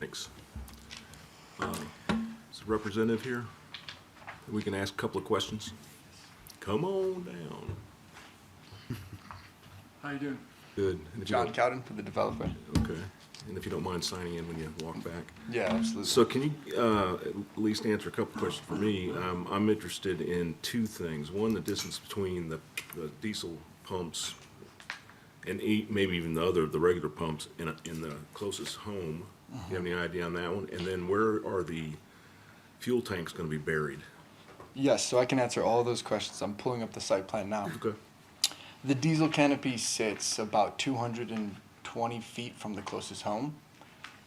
Thanks. Uh, Is the representative here? We can ask a couple of questions. Come on down. How you doing? Good. And if you John don't- Cowden for the developer. Okay. And if you don't mind signing in when you walk back. Yeah, absolutely. So can you uh, at least answer a couple questions for me? Um, I'm interested in two things. One, the distance between the the diesel pumps and e- maybe even the other, the regular pumps in a- in the closest home. Do you have any idea on that one? And then where are the fuel tanks going to be buried? yes, so I can answer all those questions. I'm pulling up the site plan now. Okay. The diesel canopy sits about 220 feet from the closest home,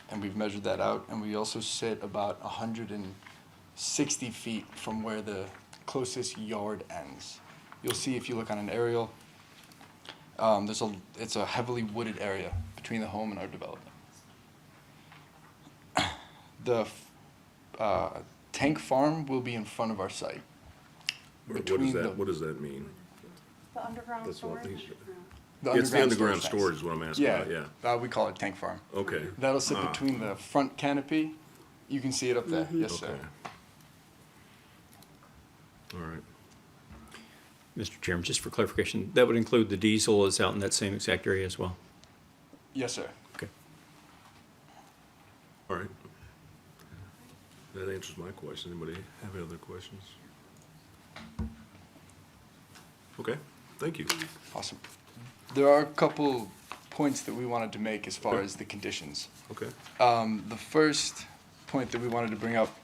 and we've measured that out. And we also sit about 160 feet from where the closest yard ends. You'll see if you look on an aerial. Um, there's a it's a heavily wooded area between the home and our development. The f- uh, tank farm will be in front of our site. What Between does the- that, what does that mean? The underground That's what storage? these It's the underground storage is what I'm asking Yeah, about, yeah. Uh, we call it tank farm. Okay. That'll sit Ah, between the front canopy. You can see it up there. Yes, Okay. sir. All right. Mr. Chairman, just for clarification, that would include the diesel is out in that same exact area as well? Yes, sir. Okay. All right. That answers my question. Anybody have any other questions? Okay, thank you. Awesome. There are a couple points that we wanted to make as far Okay. as the conditions. Okay, Um, the first point that we wanted to bring up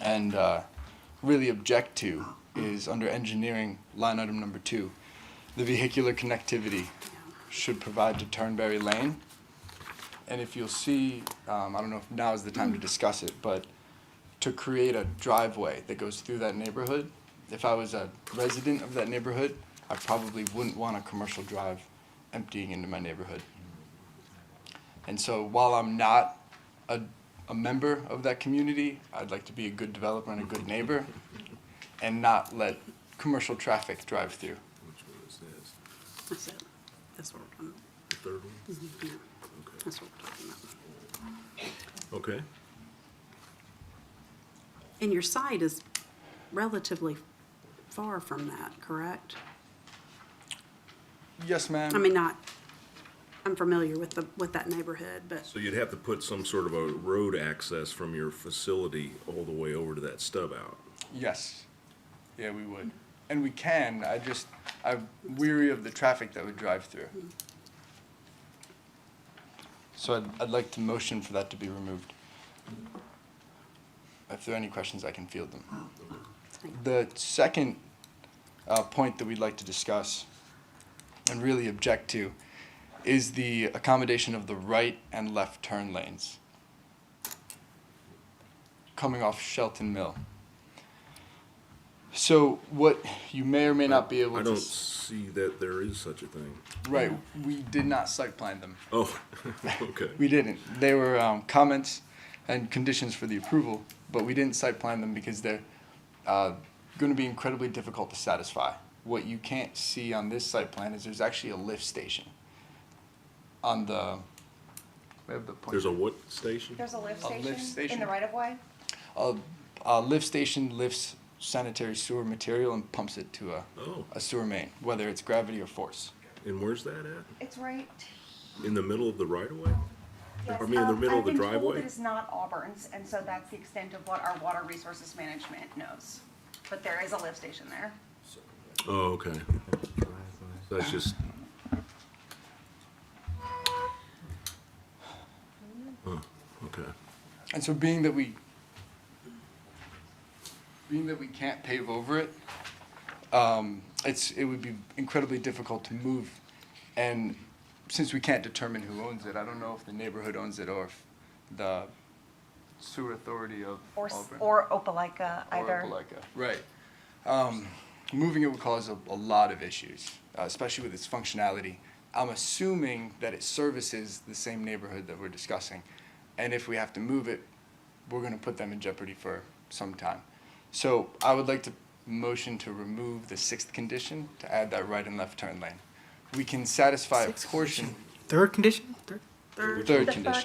and uh, really object to is under engineering line item number two. The vehicular connectivity should provide to Turnberry Lane. And if you'll see, um, I don't know if now is the time to discuss it, but to create a driveway that goes through that neighborhood, if I was a resident of that neighborhood, I probably wouldn't want a commercial drive emptying into my neighborhood. And so while I'm not a, a member of that community, I'd like to be a good developer and a good neighbor and not let commercial traffic drive through. which one is this? That's it. That's what we're, talking The third one? about. yeah, Okay. that's what we're talking about. Okay, And your site is relatively far from that, correct? Yes, ma'am. I mean, not, I'm familiar with the, with that neighborhood, but so you'd have to put some sort of a road access from your facility all the way over to that stub out. yes. Yeah, we would. And we can. I just, I'm weary of the traffic that would drive through. So I'd, I'd like to motion for that to be removed. If there are any questions, I can field them. The second uh, point that we'd like to discuss and really object to is the accommodation of the right and left turn lanes coming off Shelton Mill. So what you may or may not be able I to don't s- see that there is such a thing. right, we did not site plan them. Oh, okay, We didn't. They were um, comments and conditions for the approval, but we didn't site plan them because they're uh, going to be incredibly difficult to satisfy. What you can't see on this site plan is there's actually a lift station on the. We have the point. there's a what station? There's a lift A lift station in station. the right of way? a, a lift station lifts sanitary sewer material and pumps it to a, Oh, a sewer main, whether it's gravity or force. and where's that at? It's right. In the middle of the right of way? yes, I mean, in the um, middle of the I've been told driveway? it is not Auburn's, and so that's the extent of what our water resources management knows. But there is a lift station there. Oh, okay. So That's just. Huh, okay. And so being that we being that we can't pave over it, um, it's it would be incredibly difficult to move. And since we can't determine who owns it, I don't know if the neighborhood owns it or if the sewer authority of Or, s- Auburn or Opelika, either. Opelika. Right. Um, moving it would cause a, a lot of issues, uh, especially with its functionality. I'm assuming that it services the same neighborhood that we're discussing. And if we have to move it, we're going to put them in jeopardy for some time. So I would like to motion to remove the sixth condition to add that right and left turn lane. We can satisfy a portion, Third condition? Third? they're. third condition.